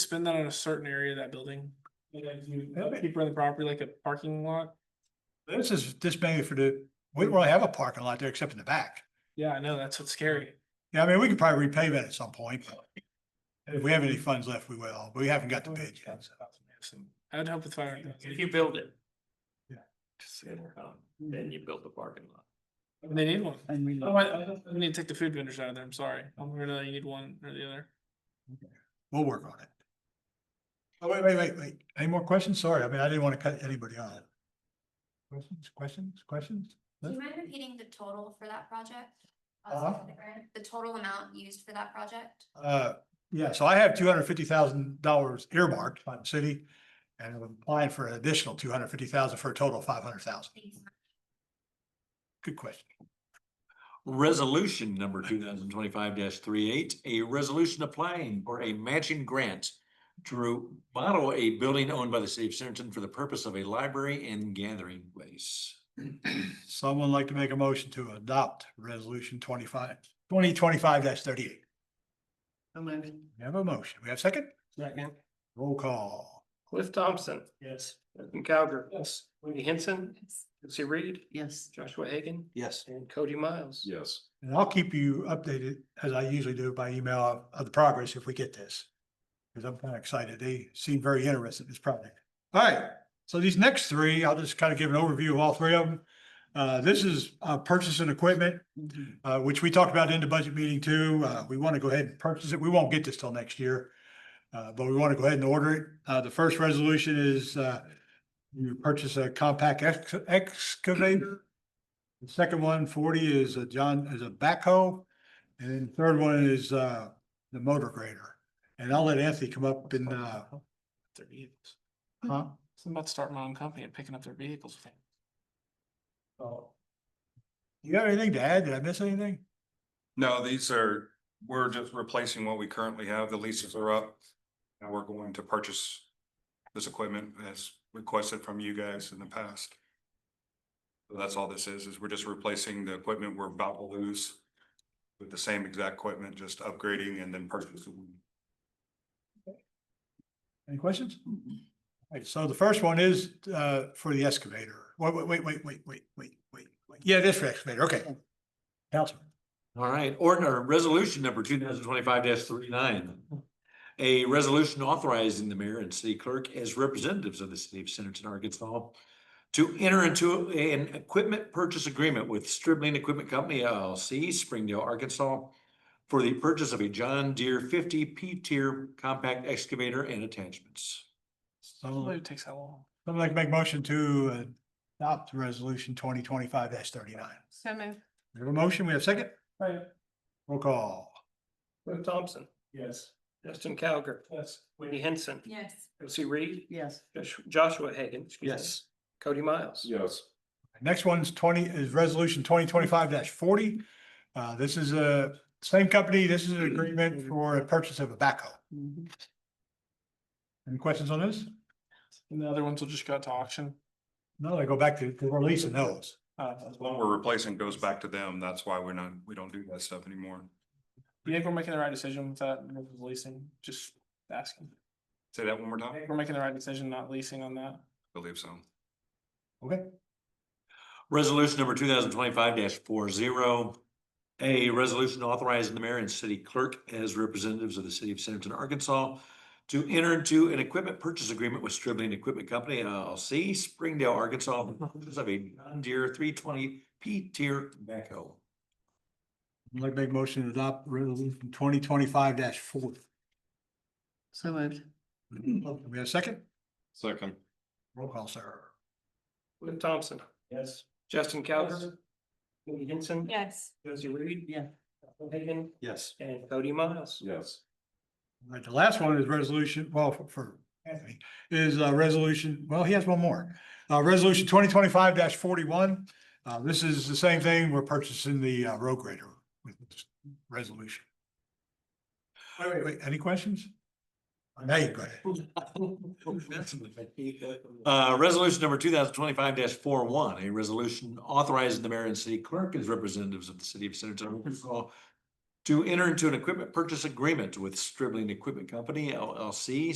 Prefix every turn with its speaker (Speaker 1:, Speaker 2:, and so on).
Speaker 1: spend that on a certain area of that building? Keep running the property like a parking lot?
Speaker 2: This is, this mainly for the, we don't really have a parking lot there except in the back.
Speaker 1: Yeah, I know, that's what's scary.
Speaker 2: Yeah, I mean, we could probably repave it at some point. but If we have any funds left, we will. but We haven't got the bid yet. so.
Speaker 1: I'd hope with fire.
Speaker 3: If you build it.
Speaker 2: Yeah.
Speaker 3: Then you build the parking lot.
Speaker 1: They need one.
Speaker 4: And we
Speaker 1: Oh, I, I need to take the food vendors out of there, I'm sorry. I'm gonna, you need one or the other.
Speaker 2: We'll work on it. Oh, wait, wait, wait, wait. Any more questions? Sorry, I mean, I didn't want to cut anybody off. Questions, questions, questions?
Speaker 5: Do you mind repeating the total for that project?
Speaker 2: Uh-huh.
Speaker 5: Uh, The total amount used for that project?
Speaker 2: Uh, yeah, so I have two hundred fifty thousand dollars earmarked by the city. And I'm applying for an additional two hundred fifty thousand for a total of five hundred thousand. Good question.
Speaker 3: Resolution number two thousand twenty-five 38 a resolution applying for a matching grant to remodel a building owned by the city of Centerton for the purpose of a library and gathering place.
Speaker 2: Someone like to make a motion to adopt resolution twenty-five, twenty twenty-five thirty-eight. We have a motion. We have a second?
Speaker 6: Second.
Speaker 2: Roll call.
Speaker 6: Cliff Thompson. Yes. Justin Cowger. Yes. Wendy Henson.
Speaker 5: Yes.
Speaker 6: Lucy Reed.
Speaker 4: Yes.
Speaker 6: Joshua Hagan.
Speaker 3: Yes.
Speaker 6: And Cody Miles.
Speaker 3: Yes.
Speaker 2: And I'll keep you updated as I usually do by email of the progress if we get this. Because I'm kind of excited. They seem very interested in this project. All right, so these next three, I'll just kind of give an overview of all three of them. Uh, this is uh, purchasing equipment, uh, which we talked about in the budget meeting too. Uh, we want to go ahead and purchase it. We won't get this till next year. Uh, but we want to go ahead and order it. Uh, the first resolution is, uh, you purchase a compact ex- excavator. The second one, 40, is a John, is a backhoe. And then the third one is, uh, the motor grader. And I'll let Anthony come up and, uh,
Speaker 1: Their vehicles.
Speaker 2: huh?
Speaker 1: So I'm about to start my own company and picking up their vehicles. with them.
Speaker 2: Oh. You got anything to add? Did I miss anything?
Speaker 7: No, these are, we're just replacing what we currently have. The leases are up. And we're going to purchase this equipment as requested from you guys in the past. So That's all this is, is we're just replacing the equipment we're about to lose with the same exact equipment, just upgrading and then purchasing.
Speaker 2: Any questions? Alright, so the first one is uh for the excavator. Wait, wait, wait, wait, wait, wait, wait, wait, wait. Yeah, it is for excavator, okay. Councilman,
Speaker 3: All right, ordinary resolution number two thousand twenty-five 39 A resolution authorizing the mayor and city clerk as representatives of the city of Centerton, Arkansas to enter into an equipment purchase agreement with Stribling Equipment Company LLC, Springdale, Arkansas for the purchase of a John Deere fifty P-tier compact excavator and attachments.
Speaker 1: Well,
Speaker 2: someone
Speaker 1: It takes how long?
Speaker 2: someone like to make motion to adopt resolution twenty twenty-five thirty-nine.
Speaker 8: So move.
Speaker 2: We have a motion, we have a second?
Speaker 6: Right.
Speaker 2: Roll call.
Speaker 6: Cliff Thompson.
Speaker 1: Yes.
Speaker 6: Justin Cowger.
Speaker 1: Yes.
Speaker 6: Wendy Henson.
Speaker 5: Yes.
Speaker 6: Lucy Reed.
Speaker 4: Yes.
Speaker 6: Josh- Joshua Hagan. excuse me, Cody Miles.
Speaker 7: Yes.
Speaker 2: Next one's twenty, is resolution twenty twenty-five forty. Uh, this is a same company, this is an agreement for a purchase of a backhoe. Any questions on this?
Speaker 1: And the other ones will just go out to auction.
Speaker 2: No, they go back to to releasing those.
Speaker 1: Uh,
Speaker 7: The one we're replacing goes back to them. That's why we're not, we don't do that stuff anymore.
Speaker 1: do you think we're making the right decision with that, with leasing, just asking?
Speaker 7: Say that one more
Speaker 1: I
Speaker 7: time.
Speaker 1: think we're making the right decision not leasing on that.
Speaker 7: Believe so.
Speaker 2: Okay.
Speaker 3: Resolution number two thousand twenty-five four zero. A resolution authorizing the mayor and city clerk as representatives of the city of Centerton, Arkansas to enter into an equipment purchase agreement with Stribling Equipment Company LLC, Springdale, Arkansas, for the purchase of a John Deere three twenty P tier backhoe.
Speaker 2: I'd like to make a motion to adopt resolution twenty twenty-five four.
Speaker 4: So moved.
Speaker 2: We have a second?
Speaker 7: Second.
Speaker 2: Roll call, sir.
Speaker 6: Cliff Thompson. Yes. Justin Cowger. Wendy Henson.
Speaker 8: Yes.
Speaker 6: Josie Reed.
Speaker 4: Yeah.
Speaker 6: Joshua Hagan.
Speaker 3: Yes.
Speaker 6: And Cody Miles.
Speaker 3: Yes.
Speaker 2: All right, the last one is resolution, well, for- for Anthony, is uh resolution, well, he has one more. Uh, resolution twenty twenty-five forty-one. Uh, this is the same thing. We're purchasing the uh, road grader with this resolution. Wait, wait, wait, any questions? Now you go ahead.
Speaker 3: Uh, resolution number two thousand twenty-five 41 a resolution authorizing the mayor and city clerk as representatives of the city of Centerton, Arkansas to enter into an equipment purchase agreement with Stribling Equipment Company LLC